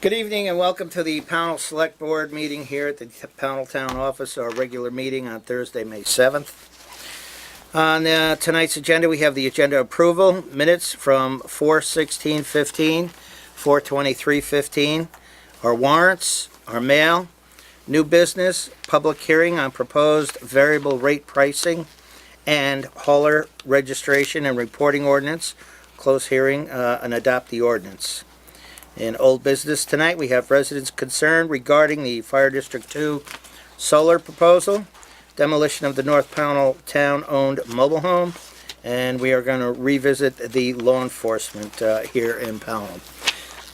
Good evening and welcome to the Pownell Select Board meeting here at the Pownell Town Office, our regular meeting on Thursday, May 7th. On uh, tonight's agenda, we have the agenda approval, minutes from 4:16:15, 4:23:15, our warrants, our mail, new business, public hearing on proposed variable rate pricing, and hauler registration and reporting ordinance, close hearing uh, and adopt the ordinance. In old business tonight, we have residents concerned regarding the Fire District Two solar proposal, demolition of the North Pownell town-owned mobile home, and we are gonna revisit the law enforcement, uh, here in Pownell.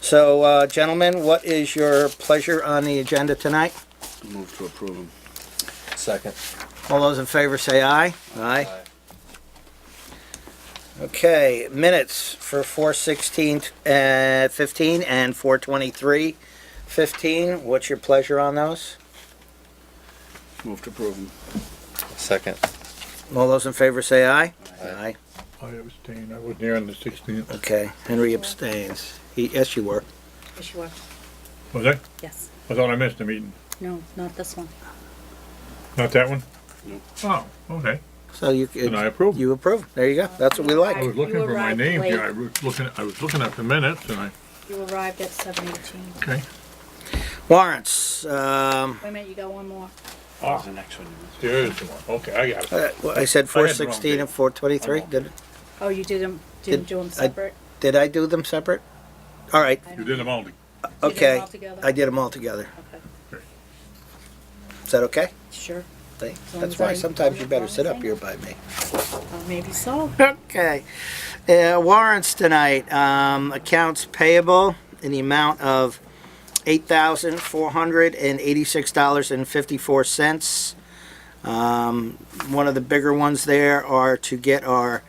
So, uh, gentlemen, what is your pleasure on the agenda tonight? Move to approve them. Second. All those in favor say aye. Aye. Okay, minutes for four sixteen, uh, fifteen and four twenty-three fifteen. What's your pleasure on those? Move to approve them. Second. All those in favor say aye. Aye. I abstain, I wasn't here on the 16th. Okay, Henry abstains. He, yes, you were. Yes, you are. Was I? Yes. I thought I missed the meeting. No, not this one. Not that one? Nope. Oh, okay. So you. Then I approve. You approve. There you go. That's what we I like. was looking for my arrived name here. I late. was looking, I was looking at the minutes and I, You arrived at seven eighteen. okay. Warrants, um, Wait a minute, you got one more. Ah, The next one. there is the one. Okay, I got it. uh, I said wrong four sixteen and four twenty-three. Did, Oh, you didn't, didn't do them I- separate? did I do them separate? All right, I You don't- did them all. to- You did them okay. all together? I did them all together. Okay, Is that okay? Sure, Thank- long That's as why I- sometimes you better sit up Thank here you. by me. Uh, maybe so. Okay. Uh, warrants tonight, um, accounts payable in the amount of eight thousand four hundred and eighty-six dollars and fifty-four cents. Um, one of the bigger ones there are to get our,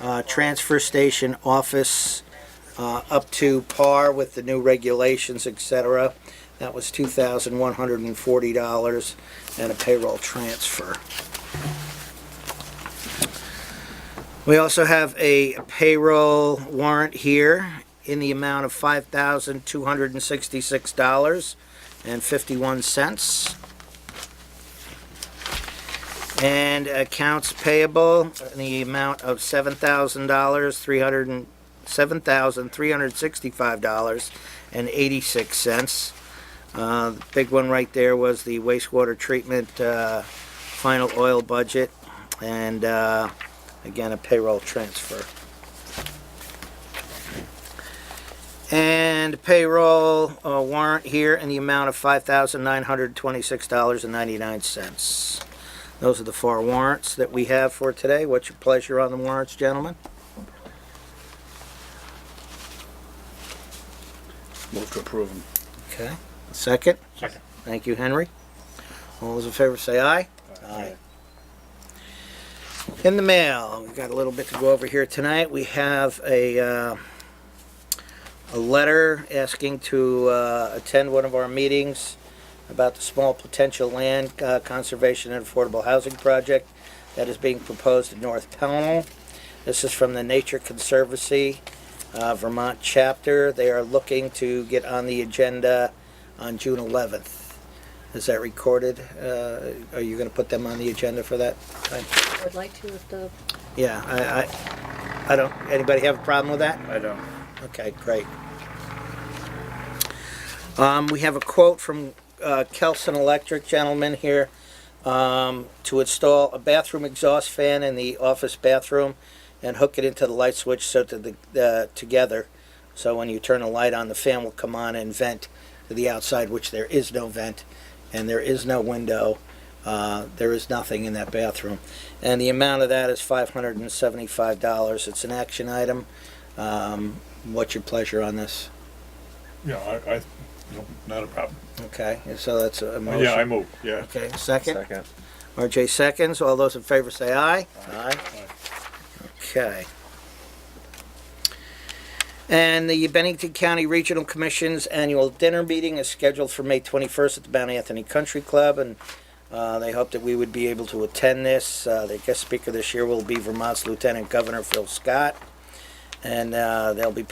uh, transfer station office, uh, up to par with the new regulations, et cetera. That was two thousand one hundred and forty dollars and a payroll transfer. We also have a payroll warrant here in the amount of five thousand two hundred and sixty-six dollars and fifty-one cents. And accounts payable in the amount of seven thousand dollars, three hundred and, seven thousand three hundred sixty-five dollars and eighty-six cents. Uh, the big one right there was the wastewater treatment, uh, final oil budget and, uh, Again, a payroll transfer. And payroll uh, warrant here in the amount of five thousand nine hundred twenty-six dollars and ninety-nine cents. Those are the four warrants that we have for today. What's your pleasure on the warrants, gentlemen? Move to approve them. Okay. Second? Second. Thank you, Henry. All those in favor say aye. Aye. In the mail, we've got a little bit to go over here tonight. We have a, uh, a letter asking to, uh, attend one of our meetings about the small potential land uh, conservation and affordable housing project that is being proposed in North Pownell. This is from the Nature Conservancy, uh, Vermont chapter. They are looking to get on the agenda on June 11th. Is that recorded? Uh, Are you going to put them on the agenda for that? time? I would like to if the, Yeah, I, I, I don't, anybody have a problem with that? I don't. Okay, great. Um, we have a quote from, uh, Kelson Electric gentleman here, um, to install a bathroom exhaust fan in the office bathroom and hook it into the light switch so to the, uh, together. So when you turn the light on, the fan will come on and vent to the outside, which there is no vent and there is no window. Uh, there is nothing in that bathroom. And the amount of that is five hundred and seventy-five dollars. It's an action item. Um, what's your pleasure on this? Yeah, I, I, no, not a problem. Okay, and so that's a motion. Yeah, I moved, yeah. Okay, second? RJ seconds. All those in favor say aye. Aye. Okay. And the Bennington County Regional Commission's annual dinner meeting is scheduled for May 21st at the Mount Anthony Country Club, and uh, they hope that we would be able to attend this. Uh, The guest speaker this year will be Vermont's Lieutenant Governor Phil Scott, and uh, they'll be